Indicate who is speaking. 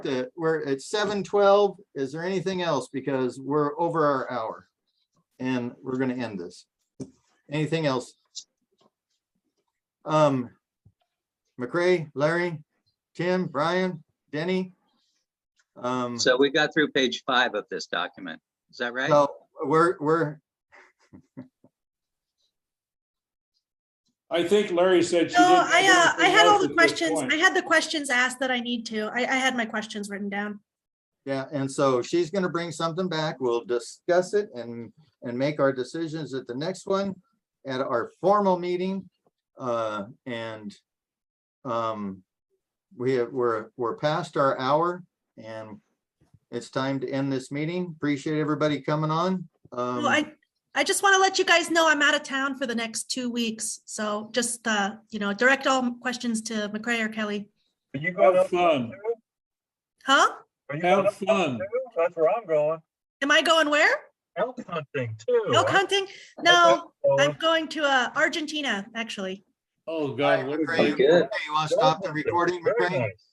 Speaker 1: uh, we're at seven twelve. Is there anything else? Because we're over our hour. And we're gonna end this. Anything else? Um, McCray, Larry, Tim, Brian, Denny. Um,
Speaker 2: So we got through page five of this document. Is that right?
Speaker 1: so we're, we're,
Speaker 3: I think Larry said she
Speaker 4: No,
Speaker 3: didn't.
Speaker 4: I, uh, I had all
Speaker 3: have anything else at
Speaker 4: the
Speaker 3: this
Speaker 4: questions.
Speaker 3: point.
Speaker 4: I had the questions asked that I need to. I, I had my questions written down.
Speaker 1: yeah, and so she's gonna bring something back. We'll discuss it and, and make our decisions at the next one. At our formal meeting, uh, and. Um, we have, we're, we're past our hour and. It's time to end this meeting. Appreciate everybody coming on.
Speaker 4: Well,
Speaker 1: Um,
Speaker 4: I, I just want to let you guys know I'm out of town for the next two weeks. So just, uh, you know, direct all questions to McCray or Kelly.
Speaker 5: Are you going
Speaker 3: Have
Speaker 5: up?
Speaker 3: fun.
Speaker 4: Huh?
Speaker 5: Are you going
Speaker 3: Have
Speaker 5: up?
Speaker 3: fun.
Speaker 5: too? That's where I'm going.
Speaker 4: Am I going where?
Speaker 5: Elk hunting too.
Speaker 4: Elk
Speaker 5: I'm
Speaker 4: hunting? No, I'm
Speaker 5: going.
Speaker 4: going to, uh, Argentina, actually.
Speaker 3: Oh,
Speaker 1: Hi,
Speaker 3: God. what a
Speaker 1: McCray.
Speaker 3: great-
Speaker 2: Good.
Speaker 1: hey, You want to stop the recording,
Speaker 5: Very
Speaker 1: McCray?
Speaker 5: nice.